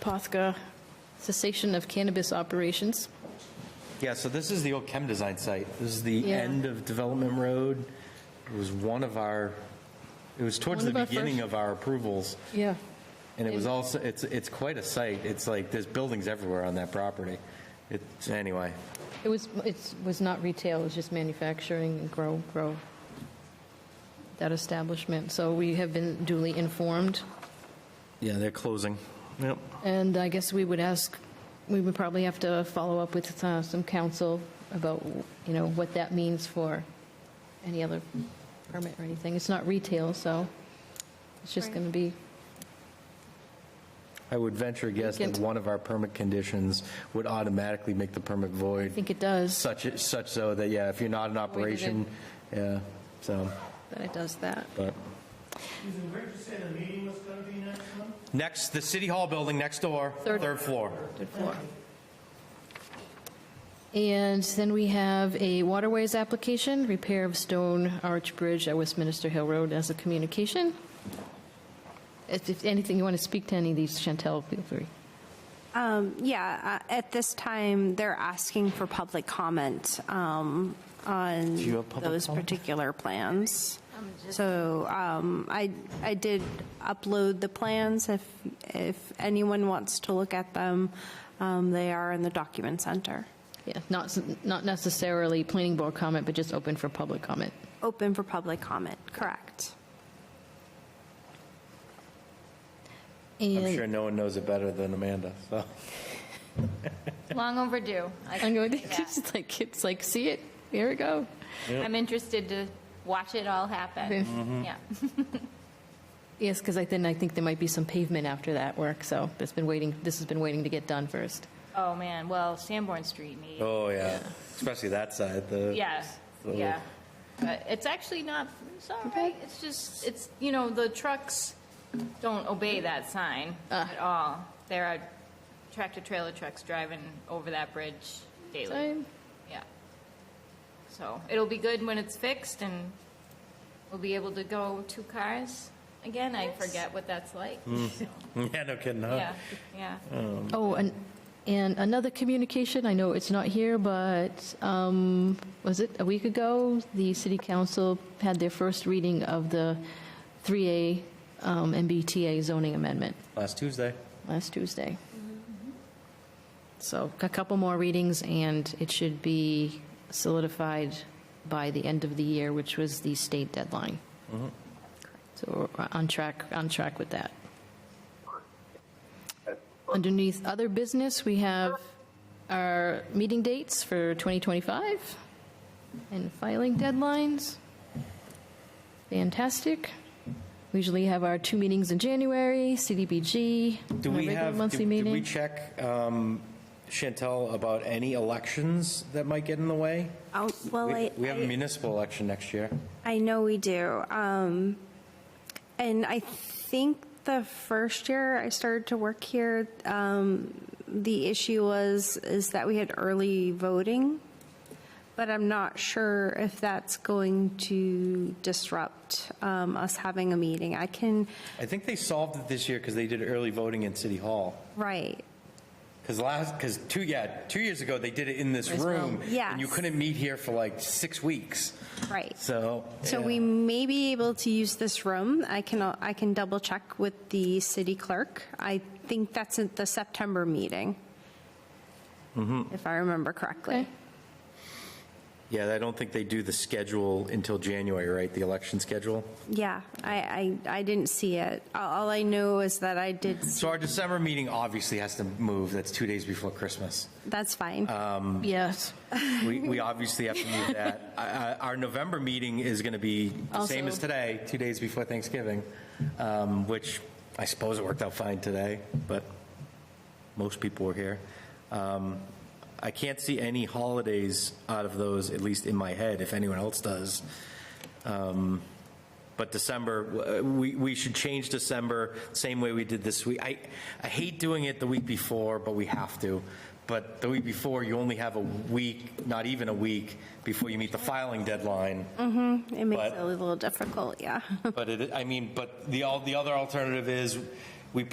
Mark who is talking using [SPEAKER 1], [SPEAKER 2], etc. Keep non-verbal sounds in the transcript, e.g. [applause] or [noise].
[SPEAKER 1] Posca cessation of cannabis operations.
[SPEAKER 2] Yeah, so this is the old chem design site. This is the
[SPEAKER 1] Yeah.
[SPEAKER 2] end of Development Road. It was one of our, it was towards
[SPEAKER 1] One
[SPEAKER 2] the
[SPEAKER 1] of our
[SPEAKER 2] beginning
[SPEAKER 1] first-
[SPEAKER 2] of our approvals.
[SPEAKER 1] Yeah.
[SPEAKER 2] And it was also, it's, it's quite a site. It's like, there's buildings everywhere on that property. It's, anyway,
[SPEAKER 1] It was, it was not retail, it was just manufacturing and grow, grow, that establishment. So we have been duly informed,
[SPEAKER 2] yeah, they're closing. Yep.
[SPEAKER 1] and I guess we would ask, we would probably have to follow up with uh, some counsel about, you know, what that means for any other permit or anything. It's not retail, so it's just going to be,
[SPEAKER 2] I would venture a guess that
[SPEAKER 1] Vacant.
[SPEAKER 2] one of our permit conditions would automatically make the permit
[SPEAKER 1] I
[SPEAKER 2] void,
[SPEAKER 1] think it does,
[SPEAKER 2] such, such so that, yeah, if you're not in operation, yeah, so,
[SPEAKER 1] that it does that.
[SPEAKER 2] but.
[SPEAKER 3] Susan, where did you say the meeting was going to be next month?
[SPEAKER 2] Next, the City Hall building next door,
[SPEAKER 1] Third-
[SPEAKER 2] third floor.
[SPEAKER 1] Third floor. And then we have a waterways application, repair of stone arch bridge at Westminster Hill Road as a communication. If, if anything, you want to speak to any of these, Chantel, feel free.
[SPEAKER 4] Um, Yeah, uh, at this time, they're asking for public comment um, on
[SPEAKER 2] you have public
[SPEAKER 4] those
[SPEAKER 2] comment?
[SPEAKER 4] particular plans. So um, I, I did upload the plans if, if anyone wants to look at them. um, They are in the document center,
[SPEAKER 1] Yeah, not, s- not necessarily planning board comment, but just open for public comment.
[SPEAKER 4] open for public comment, correct.
[SPEAKER 2] I'm
[SPEAKER 1] And-
[SPEAKER 2] sure no one knows it better than Amanda, so.
[SPEAKER 5] Long overdue.
[SPEAKER 1] [laughs] I'm
[SPEAKER 5] I-
[SPEAKER 1] going, it's like, it's like, see it, here we go.
[SPEAKER 5] I'm interested to watch it all happen. Yeah.
[SPEAKER 1] Yes, because I then I think there might be some pavement after that work, so it's been waiting, this has been waiting to get done first.
[SPEAKER 5] Oh, man. Well, Sanborn Street needs,
[SPEAKER 2] Oh, yeah, especially that side, the.
[SPEAKER 5] yeah,
[SPEAKER 2] So-
[SPEAKER 5] yeah. But it's actually not, it's all right. It's just, it's, you know, the trucks don't obey that sign at all. There are tractor-trailer trucks driving over that bridge daily.
[SPEAKER 1] Fine.
[SPEAKER 5] Yeah. So it'll be good when it's fixed and we'll be able to go two cars again. I forget what that's like. [laughs] so.
[SPEAKER 2] Yeah, no kidding, huh?
[SPEAKER 5] Yeah, yeah.
[SPEAKER 1] Oh, and, and another communication, I know it's not here, but um, was it a week ago? The city council had their first reading of the 3A um, MBTA zoning amendment
[SPEAKER 2] Last Tuesday.
[SPEAKER 1] last Tuesday. So a couple more readings, and it should be solidified by the end of the year, which was the state deadline.
[SPEAKER 2] Mm-hmm.
[SPEAKER 1] So we're on track, on track with that. Underneath other business, we have our meeting dates for 2025 and filing deadlines. Fantastic. We usually have our two meetings in January, CDBG,
[SPEAKER 2] Do
[SPEAKER 1] our
[SPEAKER 2] we
[SPEAKER 1] regular
[SPEAKER 2] have, do-
[SPEAKER 1] monthly
[SPEAKER 2] did we
[SPEAKER 1] meeting.
[SPEAKER 2] check um, Chantel about any elections that might get in the way?
[SPEAKER 4] Oh, Well,
[SPEAKER 2] We
[SPEAKER 4] I.
[SPEAKER 2] we have
[SPEAKER 4] I-
[SPEAKER 2] a municipal election next year.
[SPEAKER 4] I know we do. Um, and I think the first year I started to work here, um, the issue was is that we had early voting, but I'm not sure if that's going to disrupt um, us having a meeting. I can
[SPEAKER 2] I think they solved it this year because they did early voting in City Hall.
[SPEAKER 4] right.
[SPEAKER 2] Because last, because two, yeah, two years ago, they did it in this
[SPEAKER 1] This room.
[SPEAKER 2] room. And you
[SPEAKER 4] Yes.
[SPEAKER 2] couldn't meet here for like six weeks.
[SPEAKER 4] Right.
[SPEAKER 2] So.
[SPEAKER 4] So
[SPEAKER 2] yeah.
[SPEAKER 4] we may be able to use this room. I can, I can double check with the city clerk. I think that's at the September meeting,
[SPEAKER 2] Mm-hmm.
[SPEAKER 4] if I remember correctly.
[SPEAKER 1] Okay.
[SPEAKER 2] Yeah, I don't think they do the schedule until January, right? The election schedule?
[SPEAKER 4] Yeah, I, I, I didn't see it. All all I know is that I did,
[SPEAKER 2] So our December meeting obviously has to move. That's two days before Christmas.
[SPEAKER 4] that's fine.
[SPEAKER 2] Uh,
[SPEAKER 1] Yes.
[SPEAKER 2] We, we obviously have to move that. I- I- Our November meeting is going to be the same as
[SPEAKER 1] Also-
[SPEAKER 2] today, two days before Thanksgiving, um, which I suppose it worked out fine today, but most people were here. Um, I can't see any holidays out of those, at least in my head, if anyone else does. Um, But December, w- uh, we, we should change December, same way we did this week. I, I hate doing it the week before, but we have to. But the week before, you only have a week, not even a week, before you meet the filing deadline.
[SPEAKER 4] It makes
[SPEAKER 2] but-
[SPEAKER 4] it a little difficult, yeah.
[SPEAKER 2] But it, I mean, but the, all, the other alternative is